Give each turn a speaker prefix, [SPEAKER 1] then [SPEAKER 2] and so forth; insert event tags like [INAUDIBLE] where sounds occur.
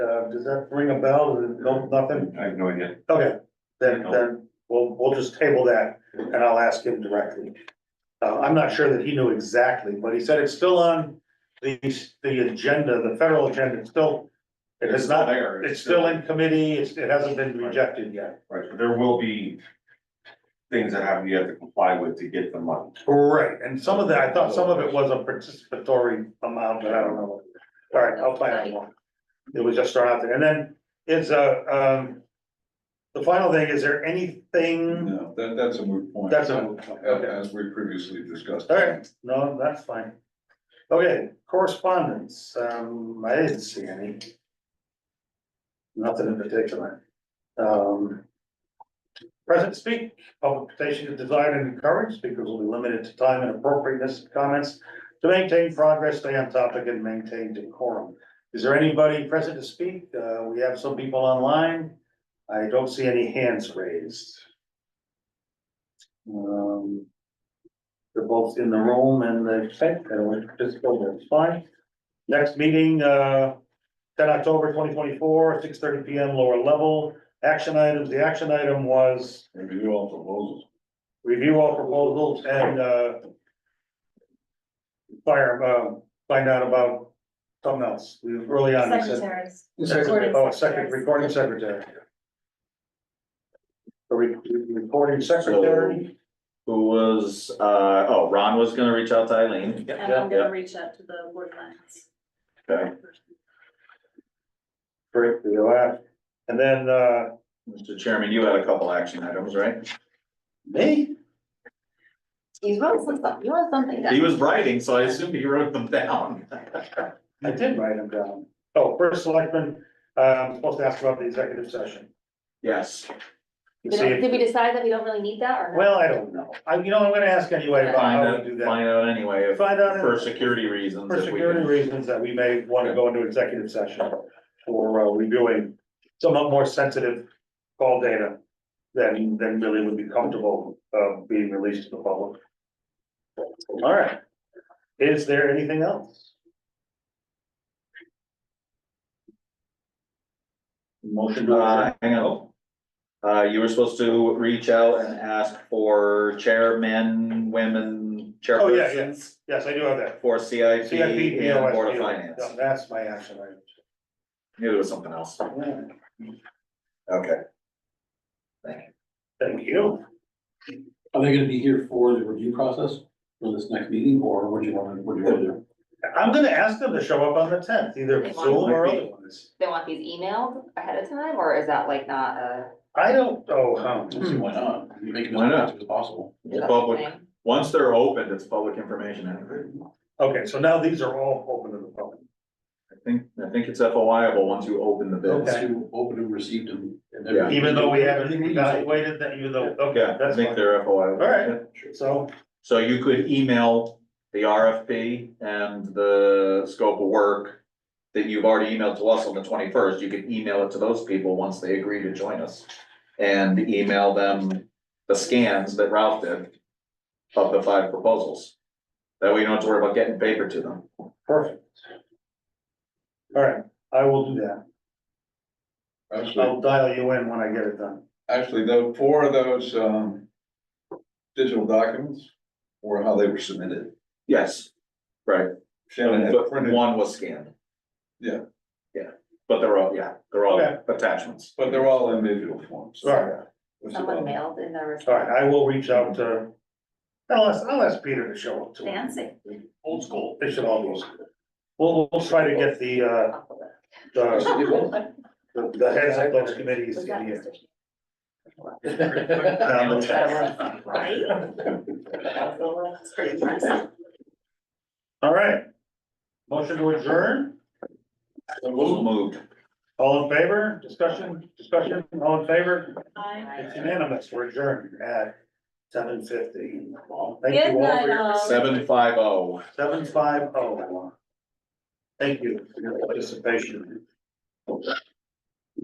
[SPEAKER 1] Uh, does that ring a bell? No, nothing?
[SPEAKER 2] I have no idea.
[SPEAKER 1] Okay, then, then we'll, we'll just table that and I'll ask him directly. Uh, I'm not sure that he knew exactly, but he said it's still on the, the agenda, the federal agenda, it's still. It is not,
[SPEAKER 2] there.
[SPEAKER 1] it's still in committee, it's, it hasn't been rejected yet.
[SPEAKER 2] Right, but there will be things that have, you have to comply with to get the money.
[SPEAKER 1] Right, and some of that, I thought some of it was a participatory amount, but I don't know. All right, I'll find out more. It was just thrown out there, and then it's a, um. The final thing, is there anything,
[SPEAKER 3] No, that, that's a moot point.
[SPEAKER 1] that's a, okay.
[SPEAKER 3] As as we previously discussed.
[SPEAKER 1] Alright, no, that's fine. Okay, correspondence, um, I didn't see any. Nothing in particular. Um. Present speak, public petition to design and encourage, speakers will be limited to time and appropriateness of comments. To maintain progress, stay on topic and maintain decorum. Is there anybody present to speak? Uh, we have some people online. I don't see any hands raised. Um. They're both in the room and the site, and we just go there, it's fine. Next meeting, uh, ten October twenty twenty-four, six thirty P M, lower level. Action items, the action item was
[SPEAKER 3] Review all proposals.
[SPEAKER 1] review all proposals and, uh, fire, uh, find out about something else. We were early on. we said-
[SPEAKER 4] Secretaries.
[SPEAKER 1] Secretary,
[SPEAKER 4] Recording
[SPEAKER 1] oh, second,
[SPEAKER 4] secretaries.
[SPEAKER 1] recording secretary. The re- recording secretary,
[SPEAKER 5] Who was, uh, oh, Ron was gonna reach out to Eileen.
[SPEAKER 4] And
[SPEAKER 6] Um,
[SPEAKER 4] I'm gonna reach out to the board lines.
[SPEAKER 5] Okay.
[SPEAKER 1] great, we laugh. And then, uh,
[SPEAKER 5] Mr. Chairman, you had a couple action items, right?
[SPEAKER 1] me?
[SPEAKER 6] You wrote something, you wrote something down.
[SPEAKER 5] He was writing, so I assume he wrote them down.
[SPEAKER 1] I did write them down. Oh, first selectman, uh, I'm supposed to ask about the executive session.
[SPEAKER 5] Yes.
[SPEAKER 1] You
[SPEAKER 6] We
[SPEAKER 1] see
[SPEAKER 6] don't-
[SPEAKER 1] if-
[SPEAKER 6] Did we decide that we don't really need that or? not?
[SPEAKER 1] Well, I don't know. I, you know, I'm gonna ask anyway about
[SPEAKER 5] Find
[SPEAKER 1] how
[SPEAKER 5] out,
[SPEAKER 1] we do that.
[SPEAKER 5] find out anyway, if-
[SPEAKER 1] Find out.
[SPEAKER 5] for security reasons.
[SPEAKER 1] For
[SPEAKER 5] if we
[SPEAKER 1] security
[SPEAKER 5] can-
[SPEAKER 1] reasons that we may wanna go into executive session for uh, reviewing somewhat more sensitive call data than, than really would be comfortable, uh, being released to the public. All right. Is there anything else? Motion to. adjourn?
[SPEAKER 5] Uh, hang on. Uh, you were supposed to reach out and ask for chairmen, women,
[SPEAKER 1] Oh, yeah, yeah.
[SPEAKER 5] chairpersons
[SPEAKER 1] Yes, I do have that.
[SPEAKER 5] for CIP
[SPEAKER 1] CIP,
[SPEAKER 5] and Board of
[SPEAKER 1] BOS,
[SPEAKER 5] Finance.
[SPEAKER 1] yeah, That's my action item.
[SPEAKER 5] Knew there was something else. Okay. Thank you.
[SPEAKER 1] Thank you.
[SPEAKER 7] Are they gonna be here for the review process for this next meeting, or what do you want, what do you want to do?
[SPEAKER 1] I'm gonna ask them to show up on the tenth, either Zoom or otherwise.
[SPEAKER 6] They want these emailed ahead of time or is that like not a?
[SPEAKER 1] I don't know how.
[SPEAKER 7] Let's see, Why not? You Make it as
[SPEAKER 5] Why not?
[SPEAKER 7] effective as possible.
[SPEAKER 5] It's public,
[SPEAKER 6] thing?
[SPEAKER 5] once they're opened, it's public information. anyway.
[SPEAKER 1] Okay, so now these are all open to the public.
[SPEAKER 5] I think, I think it's FOIable once you open the bids.
[SPEAKER 7] Those who opened and received them. and then-
[SPEAKER 5] Yeah.
[SPEAKER 1] Even though we haven't evaluated that, even though, okay,
[SPEAKER 5] Yeah, I
[SPEAKER 1] that's
[SPEAKER 5] think
[SPEAKER 1] fine.
[SPEAKER 5] they're FOIable.
[SPEAKER 1] All right. So,
[SPEAKER 5] So you could email the RFP and the scope of work that you've already emailed to us on the twenty-first. You could email it to those people once they agree to join us. And email them the scans that Ralph did of the five proposals. That way you don't have to worry about getting paper to them.
[SPEAKER 1] perfect. All right, I will do that.
[SPEAKER 3] Actually,
[SPEAKER 1] I'll dial you in when I get it done.
[SPEAKER 3] actually, though, four of those, um, digital documents were how they were submitted.
[SPEAKER 5] Yes, right.
[SPEAKER 3] Shannon had
[SPEAKER 5] But
[SPEAKER 3] printed,
[SPEAKER 5] one was scanned.
[SPEAKER 3] Yeah.
[SPEAKER 5] Yeah, but they're all, yeah, they're all
[SPEAKER 1] Okay.
[SPEAKER 5] attachments.
[SPEAKER 3] but they're all in digital forms.
[SPEAKER 1] All right,
[SPEAKER 3] Which is all-
[SPEAKER 6] Someone mailed in their
[SPEAKER 1] all
[SPEAKER 6] response.
[SPEAKER 1] right, I will reach out to, I'll ask, I'll ask Peter to show up to. it.
[SPEAKER 4] Fancy.
[SPEAKER 1] Old school. They should all go. We'll, we'll try to get the, uh, the, the the heads of those committees
[SPEAKER 6] Was
[SPEAKER 1] to
[SPEAKER 6] that
[SPEAKER 1] be here.
[SPEAKER 6] Mr. Sh-
[SPEAKER 3] [LAUGHS]
[SPEAKER 1] Um, [LAUGHS]
[SPEAKER 6] Right? That was a little- pretty impressive.
[SPEAKER 1] All right. Motion to adjourn,
[SPEAKER 5] Moved.
[SPEAKER 1] all in favor, discussion, discussion, all in favor,
[SPEAKER 4] Hi.
[SPEAKER 1] it's unanimous, we're adjourned at seven fifty.
[SPEAKER 4] Good
[SPEAKER 1] Thank you all
[SPEAKER 4] night,
[SPEAKER 1] for your,
[SPEAKER 4] all.
[SPEAKER 5] Seven five oh.
[SPEAKER 1] seven five oh. Thank you for your participation.